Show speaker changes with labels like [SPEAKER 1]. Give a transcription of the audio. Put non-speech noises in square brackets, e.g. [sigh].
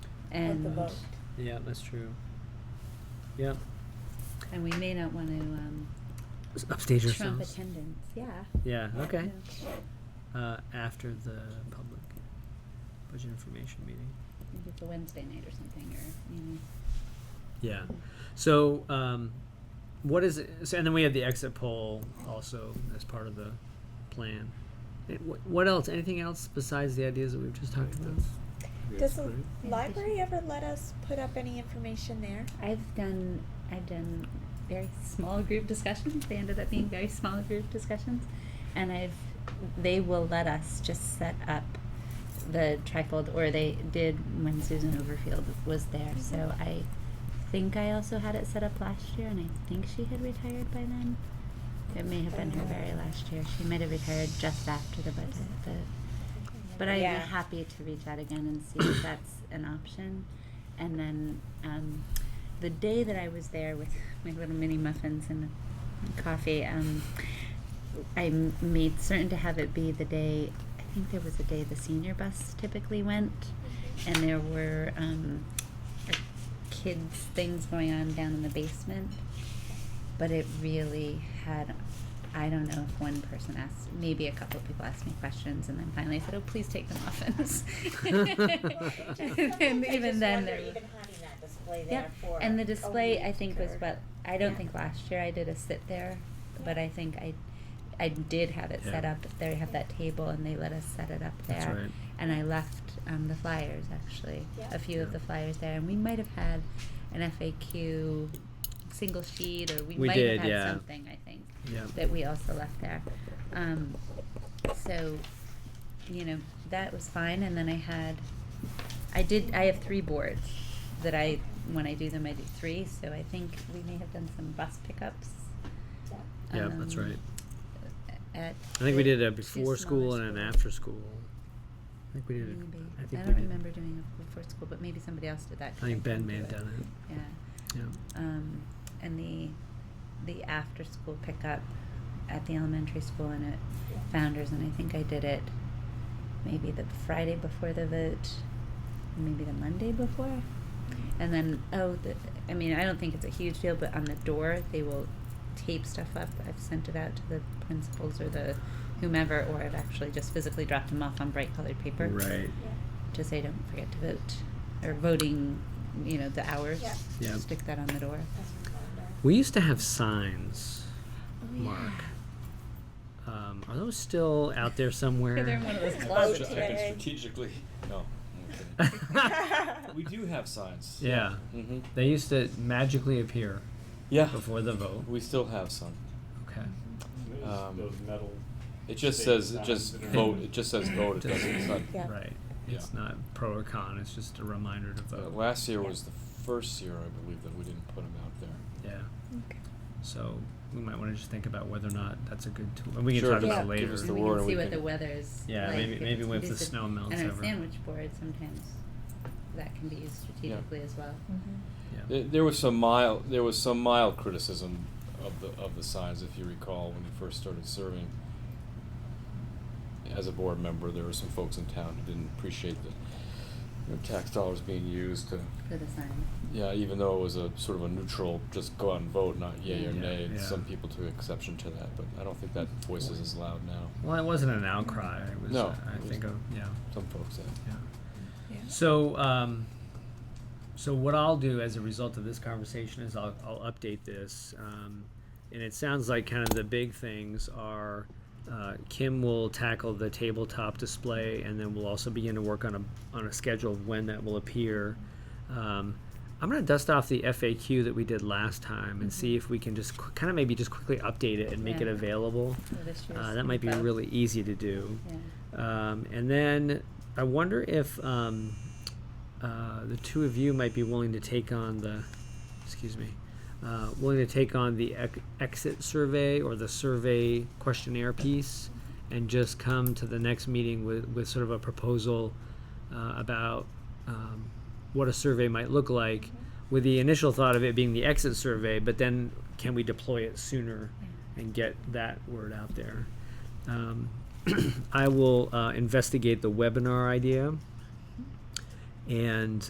[SPEAKER 1] With the
[SPEAKER 2] and
[SPEAKER 1] vote.
[SPEAKER 3] Yeah, that's true. Yeah.
[SPEAKER 2] and we may not want to um,
[SPEAKER 3] S- Upstage
[SPEAKER 2] trump
[SPEAKER 3] ourselves.
[SPEAKER 2] attendance. Yeah.
[SPEAKER 3] Yeah, okay.
[SPEAKER 2] Yeah.
[SPEAKER 3] Uh, after the public budget information meeting.
[SPEAKER 2] Maybe it's a Wednesday night or something, or you know.
[SPEAKER 3] Yeah. So, um, what is it? So, and then we have the exit poll also as part of the plan. Eh, wh- What else? Anything else besides the ideas that we've just talked about?
[SPEAKER 1] Does the
[SPEAKER 2] should-
[SPEAKER 1] library ever let us put up any information there?
[SPEAKER 2] I've done I've done very small group discussions. They ended up being very small group discussions, and I've they will let us just set up the trifold, or they did when Susan Overfield was there. So I think I also had it set up last year, and I think she had retired by then. It may have been her very last year. She might have retired just after the budget, but but I'd
[SPEAKER 1] Yeah.
[SPEAKER 2] be
[SPEAKER 1] [laughs]
[SPEAKER 2] happy [laughs] to reach out again and see if that's an option. And then um, the day that I was there with my little mini muffins and coffee, um, I m- made certain to have it be the day. I think there was a day the senior bus typically went, and there were um, like kids things going on down in the basement. But it really had I don't know if one person asked, maybe a couple of people asked me questions, and then finally I said, "Oh, please take them off." [laughs] and then even then, there was-
[SPEAKER 1] having that display
[SPEAKER 2] yeah, and the display I think was
[SPEAKER 1] [laughs]
[SPEAKER 2] what I don't think last year I did a sit there, but
[SPEAKER 1] Yeah.
[SPEAKER 2] I think I, I did have it set
[SPEAKER 3] Yeah.
[SPEAKER 2] up. They have that table, and they let us set it up there.
[SPEAKER 3] That's right.
[SPEAKER 2] And I left um, the flyers actually,
[SPEAKER 1] Yeah.
[SPEAKER 2] a few of
[SPEAKER 3] Yeah.
[SPEAKER 2] the flyers there, and we might have had an FAQ single sheet, or we,
[SPEAKER 3] We
[SPEAKER 2] might
[SPEAKER 3] did,
[SPEAKER 2] have had
[SPEAKER 3] yeah.
[SPEAKER 2] something. I think
[SPEAKER 3] Yeah.
[SPEAKER 2] that we also left there. Um, so, you know, that was fine. And then I had, I did, I have three boards that I, when I do them, I do three. So I think we may have done some bus pickups.
[SPEAKER 3] Yeah, that's
[SPEAKER 2] um,
[SPEAKER 3] right.
[SPEAKER 2] At
[SPEAKER 3] I think we did a
[SPEAKER 2] two
[SPEAKER 3] before
[SPEAKER 2] smaller
[SPEAKER 3] school and an
[SPEAKER 2] schools.
[SPEAKER 3] after school. I think we did. it-
[SPEAKER 2] Maybe.
[SPEAKER 3] I
[SPEAKER 2] I,
[SPEAKER 3] think we
[SPEAKER 2] don't
[SPEAKER 3] did.
[SPEAKER 2] remember doing it before school, but maybe somebody else did that.
[SPEAKER 3] I
[SPEAKER 2] 'cause
[SPEAKER 3] think Ben
[SPEAKER 2] couldn't
[SPEAKER 3] may
[SPEAKER 2] do
[SPEAKER 3] have done it.
[SPEAKER 2] Yeah.
[SPEAKER 3] Yeah.
[SPEAKER 2] um, and the the after school pickup at the elementary school and at Founders, and I think I did it maybe the Friday before the vote, maybe the Monday before, and then oh, the, I mean I don't think it's a huge deal, but on the door they will tape stuff up. I've sent it out to the principals or the whomever, or I've actually just physically dropped them off on bright colored paper
[SPEAKER 3] Right.
[SPEAKER 2] to say don't forget to vote or voting, you know, the hours.
[SPEAKER 1] Yeah.
[SPEAKER 3] Yeah.
[SPEAKER 2] Stick that on the door. [laughs]
[SPEAKER 1] [laughs]
[SPEAKER 3] We used to have signs,
[SPEAKER 2] Oh,
[SPEAKER 3] Mark. Um, are those still out there somewhere?
[SPEAKER 2] [laughs] They're in one of those
[SPEAKER 4] Just
[SPEAKER 2] closets.
[SPEAKER 4] checking
[SPEAKER 1] Closet.
[SPEAKER 3] [laughs]
[SPEAKER 4] strategically. No. I'm kidding. [laughs] We do have signs.
[SPEAKER 3] yeah.
[SPEAKER 4] hmm
[SPEAKER 3] They used to magically appear
[SPEAKER 4] Yeah.
[SPEAKER 3] before the vote.
[SPEAKER 4] We still have some.
[SPEAKER 3] Okay.
[SPEAKER 4] Um,
[SPEAKER 5] Those metal.
[SPEAKER 4] It just
[SPEAKER 5] Big
[SPEAKER 4] says it
[SPEAKER 5] signs
[SPEAKER 4] just
[SPEAKER 5] that are-
[SPEAKER 4] vote. It just says vote. It doesn't. It's not.
[SPEAKER 1] Yeah.
[SPEAKER 3] Right.
[SPEAKER 4] Yeah.
[SPEAKER 3] It's not pro or con. It's just a reminder to
[SPEAKER 4] Uh,
[SPEAKER 3] vote.
[SPEAKER 4] last year was the first year I believe that we didn't put them out there.
[SPEAKER 3] yeah.
[SPEAKER 1] Okay.
[SPEAKER 3] So we might want to just think about whether or not that's a good tool. And we can
[SPEAKER 4] Sure,
[SPEAKER 3] talk
[SPEAKER 4] just
[SPEAKER 3] about it
[SPEAKER 2] give
[SPEAKER 3] later.
[SPEAKER 4] us
[SPEAKER 2] And
[SPEAKER 4] the
[SPEAKER 2] we
[SPEAKER 4] word
[SPEAKER 2] can
[SPEAKER 4] and
[SPEAKER 2] see
[SPEAKER 4] we
[SPEAKER 2] what
[SPEAKER 4] can-
[SPEAKER 2] the weather's
[SPEAKER 3] Yeah,
[SPEAKER 2] like.
[SPEAKER 3] maybe-
[SPEAKER 2] If
[SPEAKER 3] maybe
[SPEAKER 2] it's-
[SPEAKER 3] if the
[SPEAKER 2] it's a-
[SPEAKER 3] snow melts
[SPEAKER 2] And
[SPEAKER 3] over.
[SPEAKER 2] a sandwich board sometimes, that can be used strategically as well.
[SPEAKER 3] yeah.
[SPEAKER 4] There, there was some mild. There was some mild criticism of the of the signs, if you recall, when you first started serving. As a board member, there were some folks in town who didn't appreciate the you know, tax dollars being used to
[SPEAKER 2] For the sign.
[SPEAKER 4] Yeah, even though it was a sort of a neutral, just go out and vote, not yay
[SPEAKER 2] Yeah.
[SPEAKER 4] or nay. and
[SPEAKER 3] Yeah.
[SPEAKER 4] Some people took exception to that, but I don't think that voice is as loud now.
[SPEAKER 3] Well, it wasn't an outcry. It was,
[SPEAKER 4] No,
[SPEAKER 3] uh, I
[SPEAKER 4] it was-
[SPEAKER 3] think, a, yeah.
[SPEAKER 4] Some folks have.
[SPEAKER 3] Yeah. So, um, so what I'll do as a result of this conversation is I'll, I'll update this. Um, and it sounds like kind of the big things are, uh, Kim will tackle the tabletop display and then we'll also begin to work on a, on a schedule of when that will appear. Um, I'm gonna dust off the FAQ that we did last time and see if we can just qu- kind of maybe just quickly update it and make it
[SPEAKER 2] Mm-hmm. Yeah.
[SPEAKER 3] available.
[SPEAKER 2] for this year's
[SPEAKER 3] Uh, that might be
[SPEAKER 2] vote.
[SPEAKER 3] really easy to do.
[SPEAKER 2] Yeah.
[SPEAKER 3] Um, and then I wonder if um, uh, the two of you might be willing to take on the, excuse me, uh, willing to take on the ec- exit survey or the survey questionnaire piece and just come to the next meeting with, with sort of a proposal uh, about um, what a survey might look like with the initial thought of it being the exit survey, but then can we deploy it sooner and get that word out there? Um, [clears throat] I will uh, investigate the webinar idea and